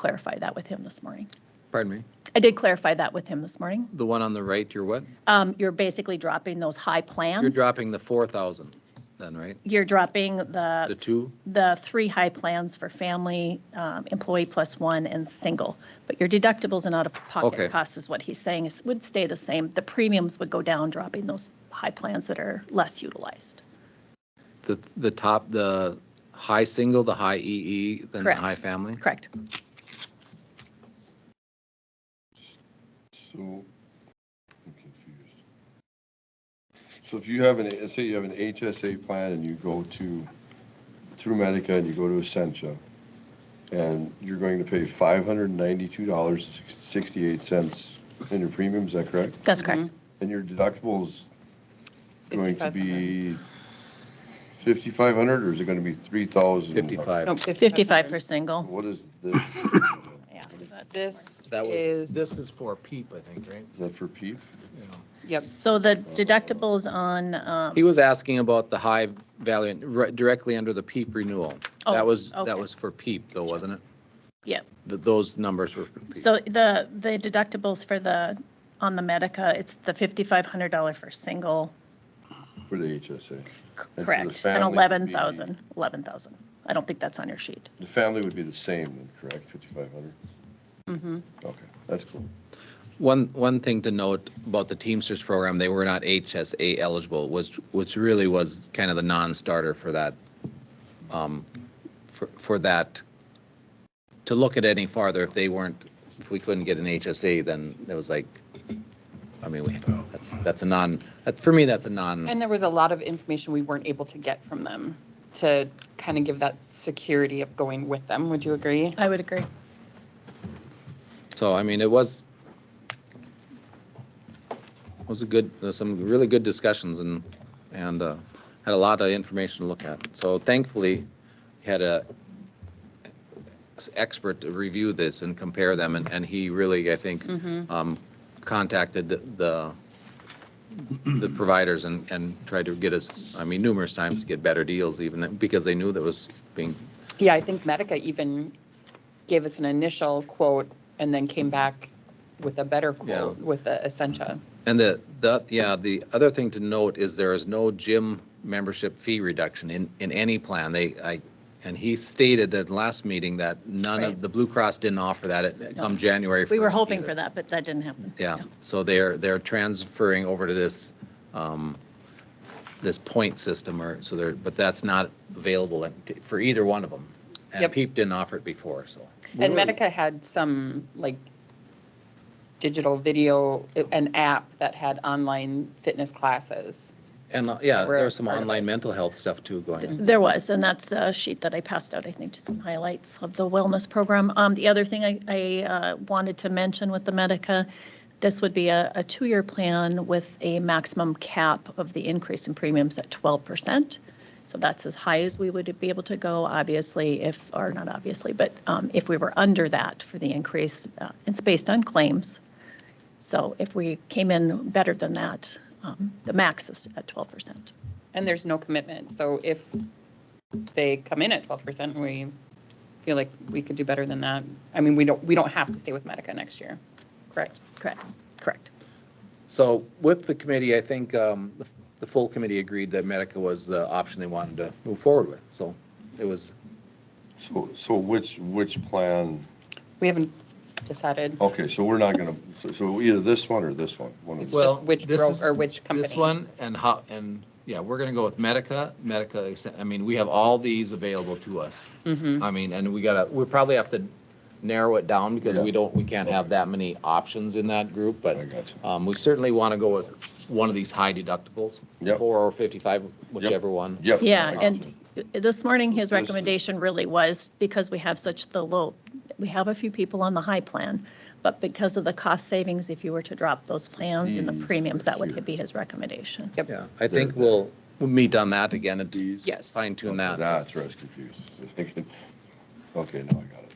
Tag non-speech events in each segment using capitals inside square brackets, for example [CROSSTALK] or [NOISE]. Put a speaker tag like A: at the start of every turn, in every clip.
A: clarify that with him this morning.
B: Pardon me?
A: I did clarify that with him this morning.
B: The one on the right, you're what?
A: Um, You're basically dropping those high plans.
B: You're dropping the 4,000 then, right?
A: You're dropping
B: The
A: the,
B: two?
A: the three high plans for family, um, employee plus one, and single. But your deductibles and
B: Okay.
A: out-of-pocket costs is what he's saying, is would stay the same. The premiums would go down, dropping those high plans that are less utilized.
B: The, the top, the high single, the high EE, then the
A: Correct.
B: high family?
A: Correct.
C: So, I'm confused. So if you have an, let's say you have an HSA plan and you go to, through Medica and you go to Essentia, and you're going to pay $592.68 in your premium, is that correct?
A: That's
D: Mm-hmm.
A: correct.
C: And your deductible's going to
D: 5,500.
C: be 5,500 or is it going to be 3,000?
B: 55.
D: No,
A: 55 for single.
C: What is this?
A: I asked you that.
D: This
B: That was,
D: is.
B: this is for PEEP, I think, right?
C: Is that for PEEP?
B: Yeah.
D: Yep,
A: So the deductibles on, um,
B: He was asking about the high value, right, directly under the PEEP renewal.
A: Oh,
B: That was,
A: okay.
B: that was for PEEP though, wasn't it?
A: yeah,
B: Th- Those numbers were for PEEP.
A: So the, the deductibles for the, on the Medica, it's the $5,500 for single,
C: For the HSA? the
A: correct, and
C: family would be-
A: 11,000, 11,000. I don't think that's on your sheet.
C: The family would be the same then, correct, 5,500?
D: mm-hmm,
B: Mm.
C: Okay, that's cool.
B: One, one thing to note about the Teamsters program, they were not HSA eligible, which, which really was kind of the non-starter for that, um, for, for that, to look at any farther, if they weren't, if we couldn't get an HSA, then it was like, I mean, we, that's, that's a non, that- for me, that's a non,
D: and there was a lot of information we weren't able to get from them to kind of give that security of going with them, would you agree?
A: I would agree.
B: so, I mean, it was, was a good, there's some really good discussions and, and, uh, had a lot of information to look at. So thankfully, had a expert to review this and compare them, and, and he really, I think, um, contacted the, the providers and, and tried to get us, I mean, numerous times to get better deals even, because they knew that was being,
D: Yeah, I think Medica even gave us an initial quote and then came back with a better quote
B: Yeah. Mm-hmm.
D: with the Essentia.
B: and the, the, yeah, the other thing to note is there is no gym membership fee reduction in, in any plan. They, I, and he stated at last meeting that none
A: Right.
B: of, the Blue Cross didn't offer that at- come January 1st.
A: We were hoping for
B: either.
A: that, but that didn't happen.
B: Yeah, so they're, they're transferring over to this, um, this point system or, so they're, but that's not available at- for either one of them. And
D: Yep.
B: PEEP didn't offer it before, so.
D: And Medica had some like digital video, an app that had online fitness classes.
B: And, uh, yeah,
D: We're
B: there's some
D: part of
B: online mental health stuff too going on.
A: There was, and that's the sheet that I passed out, I think, just some highlights of the wellness program. Um, The other thing I, I uh, wanted to mention with the Medica, this would be a, a two-year plan with a maximum cap of the increase in premiums at 12%. So that's as high as we would be able to go, obviously, if, or not obviously, but um, if we were under that for the increase, uh, it's based on claims. So if we came in better than that, um, the max is at 12%.
D: And there's no commitment, so if they come in at twelve percent, we feel like we could do better than that. I mean, we don't, we don't have to stay with Medica next year, correct?
A: Correct, correct.
B: So with the committee, I think, um, the- the full committee agreed that Medica was the option they wanted to move forward with, so it was,
C: So, so which, which plan,
D: We haven't decided
C: okay, so we're not going to, so either this one or this one? one of
D: It's
C: the-
B: Well,
D: just which
B: this is-
D: broker, or which company.
B: This one and how, and, yeah, we're gonna go with Medica, Medica, I mean, we have all these available to us.
D: Mhm.
B: I mean, and we gotta, we probably have to narrow it down because we
C: Yeah.
B: don't, we can't have that many options in that group,
C: I
B: but,
C: got you.
B: um, we certainly wanna go with one of these high deductibles.
C: Yep.
B: Four or fifty-five, whichever one.
C: Yep. I
A: Yeah,
C: got
A: and
C: you.
A: this morning, his
C: This is-
A: recommendation really was, because we have such the low, we have a few people on the high plan, but because of the cost savings, if you were to drop those plans and the premiums, that would be his recommendation.
D: Yep.
B: Yeah, I think we'll, we'll meet on that again and
D: Yes.
B: fine tune that.
C: That's where I was confused. [LAUGHS] Okay, now I got it.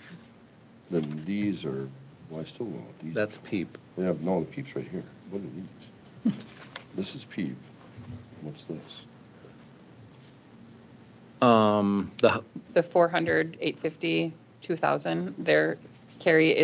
C: Then these are, well, I still don't know what these.
B: That's PEEP.
C: We have, no, the PEEP's right here. What are these? [LAUGHS] This is PEEP. What's this?
B: Um, the, Um,
D: The 400, 850, 2,000, they're Carrie,